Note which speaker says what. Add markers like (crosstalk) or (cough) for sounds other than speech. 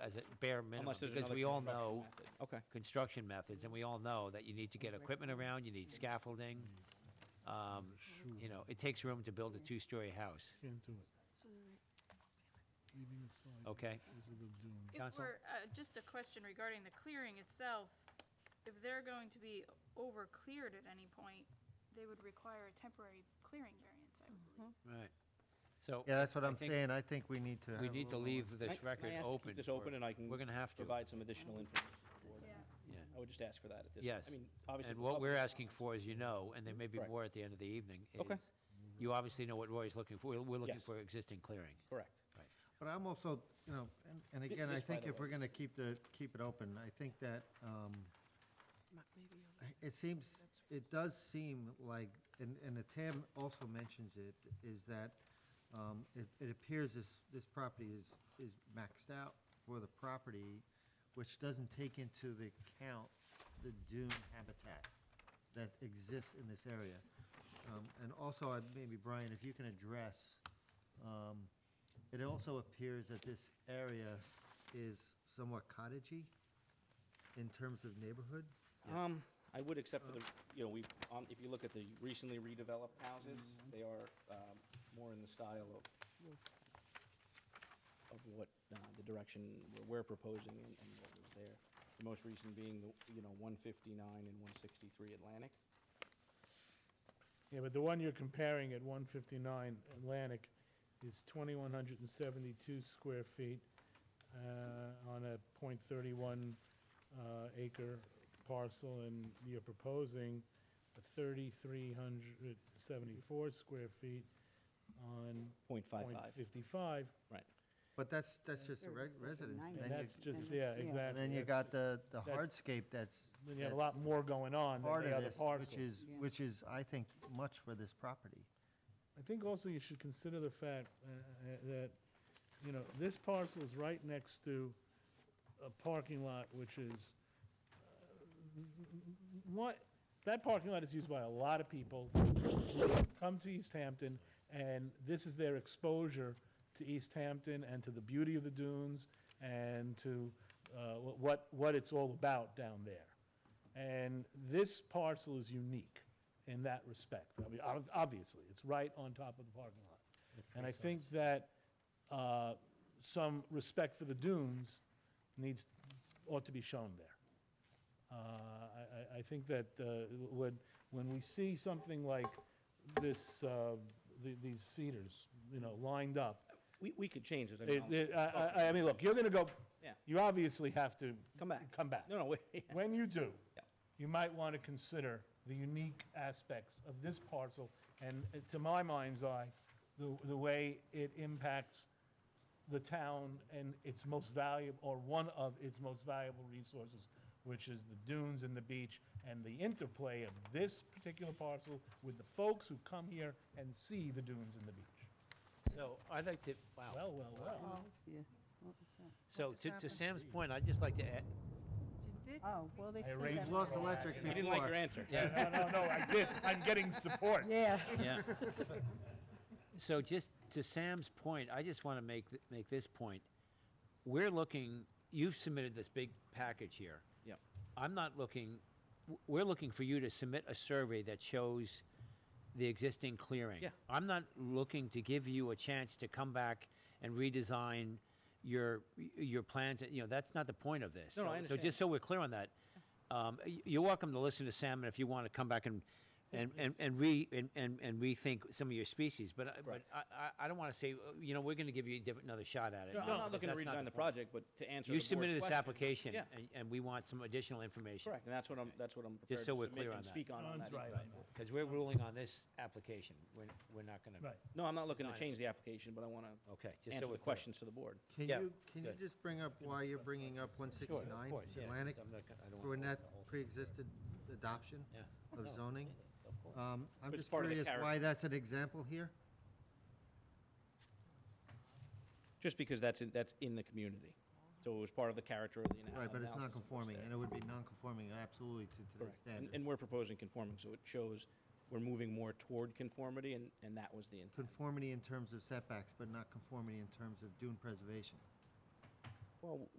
Speaker 1: as a bare minimum,
Speaker 2: Unless there's
Speaker 1: because
Speaker 2: another
Speaker 1: we all
Speaker 2: construction
Speaker 1: know,
Speaker 2: method. Okay,
Speaker 1: construction methods, and we all know that you need to get equipment around, you need scaffolding. Um, you know, it takes room to build a two-story house,
Speaker 3: Can't do it. Leaving aside.
Speaker 1: okay?
Speaker 3: what they're doing.
Speaker 4: If
Speaker 1: Counsel?
Speaker 4: we're, uh, just a question regarding the clearing itself, if they're going to be over-cleared at any point, they would require a temporary clearing variance, I would believe.
Speaker 1: Right. So
Speaker 5: Yeah, that's what
Speaker 1: I
Speaker 5: I'm
Speaker 1: think
Speaker 5: saying. I think we need to.
Speaker 1: we
Speaker 5: have a
Speaker 1: need to
Speaker 5: little more-
Speaker 1: leave
Speaker 2: Can I-
Speaker 1: this
Speaker 2: can I
Speaker 1: record
Speaker 2: ask to keep
Speaker 1: open.
Speaker 2: this open
Speaker 1: for-
Speaker 2: and I can
Speaker 1: We're gonna have to.
Speaker 2: provide some additional information. to the board.
Speaker 4: Yeah.
Speaker 1: Yeah.
Speaker 2: I would just ask for that at this.
Speaker 1: Yes.
Speaker 2: I mean, obviously.
Speaker 1: And
Speaker 2: the
Speaker 1: what
Speaker 2: pub-
Speaker 1: we're asking for, as you know, and there may be
Speaker 2: Correct.
Speaker 1: more at the end of the evening,
Speaker 2: Okay.
Speaker 1: is, you obviously know what Roy's looking for. We're- We're looking
Speaker 2: Yes.
Speaker 1: for existing clearing.
Speaker 2: Correct.
Speaker 5: But I'm also, you know, and, and again, I
Speaker 2: just by
Speaker 5: think
Speaker 2: the
Speaker 5: if
Speaker 2: way.
Speaker 5: we're gonna keep the, keep it open, I think that, um, I- it seems, it does seem like, and, and the TAM also mentions it, is that, um, it, it appears this, this property is, is maxed out for the property, which doesn't take into the account the dune habitat that exists in this area. Um, and also, I'd- maybe Brian, if you can address, um, it also appears that this area is somewhat cottagey in terms of neighborhood.
Speaker 2: Um, I would accept for the, you know, we, um, if you look at the recently redeveloped houses, they are, um, more in the style of, of what, uh, the direction we're- we're proposing and, and what was there. The most recent being the, you know, one fifty-nine and one sixty-three Atlantic.
Speaker 3: Yeah, but the one you're comparing at 159 Atlantic is 2,172 square feet uh, on a .31 uh, acre parcel, and you're proposing a 3,374 square feet on
Speaker 2: Point five five.
Speaker 3: .55.
Speaker 5: But that's, that's just the re-
Speaker 6: There is like a
Speaker 5: residence.
Speaker 6: nine
Speaker 5: and
Speaker 3: And
Speaker 5: then you-
Speaker 3: that's just,
Speaker 6: and
Speaker 3: yeah,
Speaker 6: that's- yeah.
Speaker 3: exactly.
Speaker 5: And then you
Speaker 3: that's-
Speaker 5: got the, the
Speaker 3: that's-
Speaker 5: hardscape that's.
Speaker 3: Then you have a
Speaker 5: that's
Speaker 3: lot more going on than
Speaker 5: Part
Speaker 3: the
Speaker 5: of
Speaker 3: other
Speaker 5: this,
Speaker 3: parcel.
Speaker 5: which is,
Speaker 6: Yeah.
Speaker 5: which is, I think, much for this property.
Speaker 3: I think also you should consider the fact uh, uh, that, you know, this parcel is right next to a parking lot which is, uh, what, that parking lot is used by a lot of people who come to East Hampton, and this is their exposure to East Hampton and to the beauty of the dunes and to uh, wh- what, what it's all about down there. And this parcel is unique in that respect. I mean, ob- obviously, it's right on top of the parking lot. And I think that uh, some respect for the dunes needs, ought to be shown there. Uh, I- I, I think that uh, when, when we see something like this, uh, the- these cedars, you know, lined up,
Speaker 2: We, we could change this. I mean,
Speaker 3: it-
Speaker 2: I'll-
Speaker 3: it- I, I- I mean, look, you're going to go,
Speaker 2: Yeah.
Speaker 3: you obviously have to.
Speaker 2: Come back.
Speaker 3: Come back.
Speaker 2: (laughs) No, no, wait.
Speaker 3: When you do,
Speaker 2: Yeah.
Speaker 3: you might want to consider the unique aspects of this parcel, and uh, to my mind's eye, the, the way it impacts the town and its most valuable, or one of its most valuable resources, which is the dunes and the beach, and the interplay of this particular parcel with the folks who come here and see the dunes and the beach.
Speaker 1: So I'd like to, wow.
Speaker 2: Oh.
Speaker 3: Well, well, well.
Speaker 6: Yeah.
Speaker 1: So to, to Sam's point, I'd just like to add,
Speaker 6: Oh, well, they
Speaker 3: I
Speaker 6: said
Speaker 3: arranged
Speaker 6: that.
Speaker 5: We've lost electric
Speaker 2: (laughs) You
Speaker 5: before.
Speaker 2: didn't like your answer.
Speaker 1: yeah,
Speaker 3: No, no, no, I did, I'm getting support.
Speaker 5: (laughs)
Speaker 6: Yeah.
Speaker 1: Yeah. So just to Sam's point, I just want to make, th- make this point. We're looking, you've submitted this big package here.
Speaker 2: Yep.
Speaker 1: I'm not looking, w- we're looking for you to submit a survey that shows the existing clearing.
Speaker 2: Yeah.
Speaker 1: I'm not looking to give you a chance to come back and redesign your, y- your plans, you know, that's not the point of this.
Speaker 2: No, no, I
Speaker 1: So-
Speaker 2: understand.
Speaker 1: So just so we're clear on that, um, y- you're welcome to listen to Sam, and if you want to come back and, and, and, and re, and, and and rethink some of your species, but, I- but
Speaker 2: Right.
Speaker 1: I, I, I don't want to say, uh, you know, we're going to give you a different, another shot at it.
Speaker 2: No, I'm not looking to
Speaker 1: that's
Speaker 2: redesign the
Speaker 1: point.
Speaker 2: project, but to answer
Speaker 1: You
Speaker 2: the board's
Speaker 1: submitted this
Speaker 2: question.
Speaker 1: application,
Speaker 2: Yeah.
Speaker 1: and, and we want some additional information.
Speaker 2: Correct, and that's what I'm, that's what I'm prepared
Speaker 1: so
Speaker 2: to
Speaker 1: we're
Speaker 2: submit
Speaker 1: clear
Speaker 2: and
Speaker 1: on that.
Speaker 2: speak on, on
Speaker 3: John's
Speaker 2: that.
Speaker 3: right on that.
Speaker 1: Because we're ruling on this application, we're, we're not going
Speaker 3: Right.
Speaker 1: to,
Speaker 2: No, I'm not looking to
Speaker 1: Design it.
Speaker 2: change the application, but I want to
Speaker 1: okay, just so we're
Speaker 2: answer the
Speaker 1: clear.
Speaker 2: questions to the board.
Speaker 5: Can
Speaker 1: Yeah,
Speaker 5: you, can you
Speaker 1: good.
Speaker 5: just bring up why you're bringing up one
Speaker 1: Sure, of
Speaker 5: sixty-nine
Speaker 1: course, yeah,
Speaker 5: Atlantic?
Speaker 1: since I'm not gonna- I don't
Speaker 5: For when
Speaker 1: wanna
Speaker 5: that
Speaker 1: hold the whole-
Speaker 5: pre-existed adoption
Speaker 1: Yeah.
Speaker 2: (laughs)
Speaker 5: of zoning?
Speaker 1: Of course.
Speaker 5: Um, I'm
Speaker 2: It's
Speaker 5: just
Speaker 2: part of the
Speaker 5: curious why
Speaker 2: character.
Speaker 5: that's an example here?
Speaker 2: Just because that's, in- that's in the community. So it was part of the character of the ana- analysis.
Speaker 5: Right, but it's not
Speaker 2: of what's
Speaker 5: conforming,
Speaker 2: there.
Speaker 5: and it would be non-conforming absolutely to today's
Speaker 2: Correct. And-
Speaker 5: standards.
Speaker 2: And we're proposing conforming, so it shows we're moving more toward conformity, and, and that was the intent.
Speaker 5: Conformity in terms of setbacks, but not conformity in terms of dune preservation.
Speaker 2: Well,